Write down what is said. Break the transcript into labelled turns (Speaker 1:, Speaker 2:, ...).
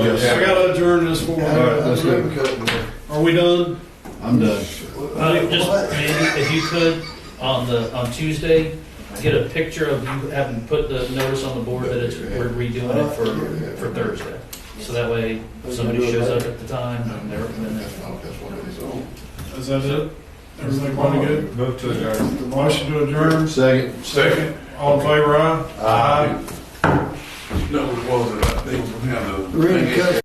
Speaker 1: That's good.
Speaker 2: Are we done?
Speaker 1: I'm done.
Speaker 3: Uh, just maybe if you could, on the, on Tuesday, get a picture of you having put the notice on the board that it's, we're redoing it for, for Thursday. So that way, if somebody shows up at the time, and they're, and they're-
Speaker 2: Is that it? Everything going good?
Speaker 4: Move to adjourn.
Speaker 2: Motion to adjourn.
Speaker 1: Second.
Speaker 2: Second. All in favor, aye?
Speaker 1: Aye.
Speaker 4: No, it wasn't. I think, you know, the
Speaker 1: Really
Speaker 4: thing is-
Speaker 1: cut